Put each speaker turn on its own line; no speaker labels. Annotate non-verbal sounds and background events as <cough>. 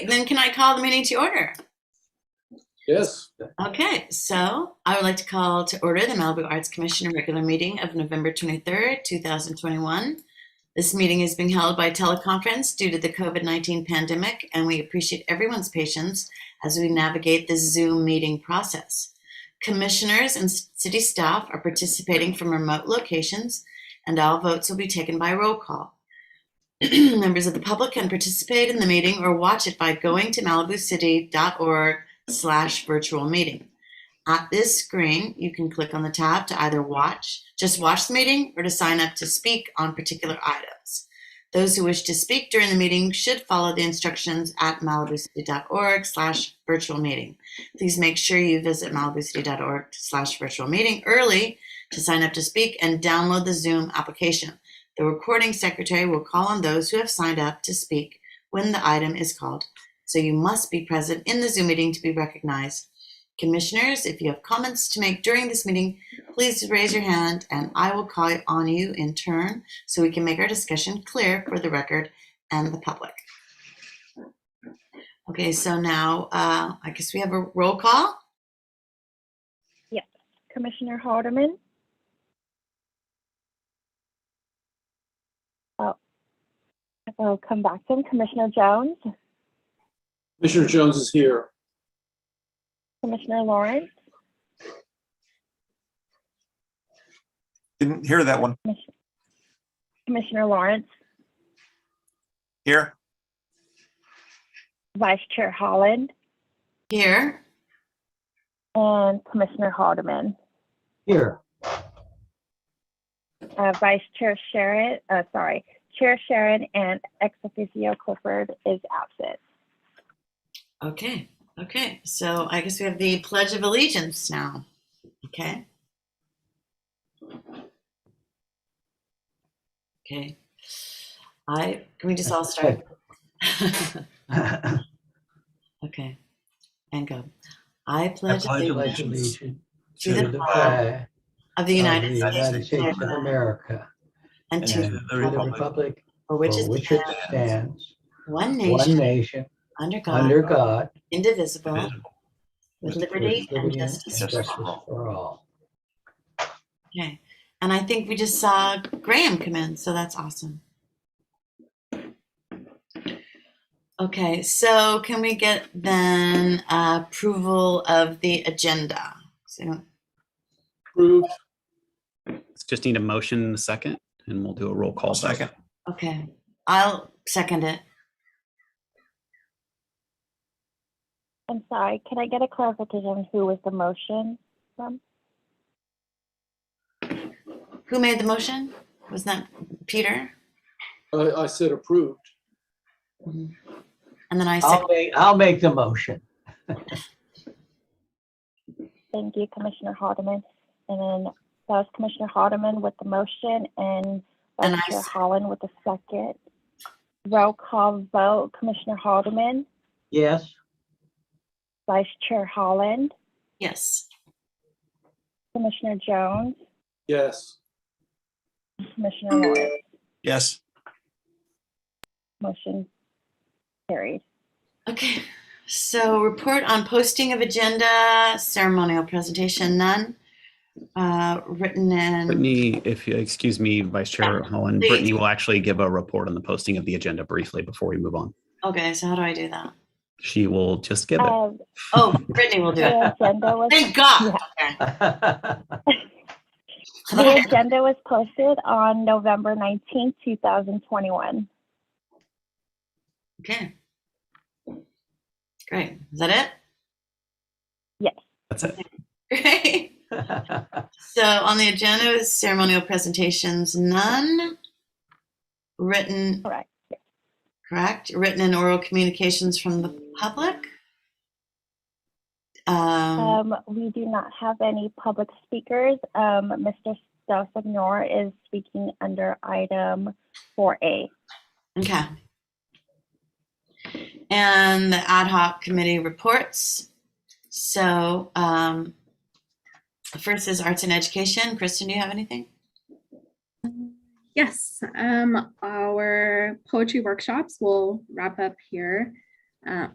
then can I call the meeting to E order?
Yes,
Okay, so I would like to call to order the Malibu Arts Commission regular meeting of November 23rd, 2021. This meeting is being held by teleconference due to the COVID-19 pandemic, and we appreciate everyone's patience as we navigate the Zoom meeting process. Commissioners and s- city staff are participating from remote locations, and all votes will be taken by roll call. <clears throat> Members of the public can participate in the meeting or watch it by going to malibucity.org slash virtual meeting. At this screen, you can click on the tab to either watch, just watch the meeting, or to sign up to speak on particular items. Those who wish to speak during the meeting should follow the instructions at malibucity.org slash virtual meeting. Please make sure you visit malibucity.org slash virtual meeting early to sign up to speak and download the Zoom application. The recording secretary will call on those who have signed up to speak when the item is called so you must be present in the Zoom meeting to be recognized. Commissioners, if you have comments to make during this meeting, please raise your hand and I will call on you in turn so we can make our discussion clear for the record and the public. Okay, so now uh, I guess we have a roll call.
Commissioner Haldeman? Oh, I'll come back to him. Commissioner Jones,
Commissioner Jones is here.
Commissioner Lawrence,
Didn't hear that one.
Commissioner Lawrence,
Here,
Vice Chair Holland,
Here,
and Commissioner Haldeman.
Here.
<laughs>
Uh, Vice Chair Sharon, uh, sorry, Chair Sharon and ex officio Clifford is absent.
okay, okay. So I guess we have the Pledge of Allegiance now. Okay. Okay. I, can we just all start? Okay, and go. I
I
pledge
pledge
allegiance
allegiance
to the flag
flag
of the
of
United
the United
States of
States of
America
America
and
and
to
to
the
the
republic
republic
for which
for
is
which it
the
stands,
one
one
nation,
nation,
under
under
God,
God,
indivisible,
visible.
with
with
liberty and justice.
for all.
for all.
Okay, and I think we just saw Graham come in, so that's awesome. Okay, so can we get then uh, approval of the agenda? So,
Approved.
Just need a motion in a second and we'll do a roll call.
Second,
okay, I'll second it.
I'm sorry, can I get a clarification on who was the motion from?
Who made the motion? Was that Peter?
I, I said approved.
Mhm. And then I
I'll
second,
make, I'll make the motion.
Thank you, Commissioner Haldeman. And then that was Commissioner Haldeman with the motion and
And
Vice
I
Chair
s-
Holland with the second. Roll call vote, Commissioner Haldeman,
<laughs>
Yes, <laughs>
Vice Chair Holland,
yes.
Commissioner Jones,
Yes.
Commissioner Lawrence.
yes,
Motion carried.
Okay, so report on posting of agenda, ceremonial presentation, none. Uh, Written in,
Brittany, if you, excuse me, Vice Chair Holland,
please.
Brittany will actually give a report on the posting of the agenda briefly before we move on.
okay, so how do I do that?
She will just give it.
Uh,
Oh, Brittany will do it.
The agenda was,
Thank God.
the agenda was posted on November nineteenth, two thousand twenty-one.
Okay. Great, is that
Yes.
That's it.
it? <laughs> Great. So on the agenda is ceremonial presentations, none. Written.
Correct.
Correct. Written and oral communications from the public. Um,
Um, we do not have any public speakers. Um, Mr. Stelsignor is speaking under item four A.
okay. And the ad hoc committee reports. So, um, first is arts and education. Kristen, do you have anything?
Yes, um, our poetry workshops will wrap up here. Uh,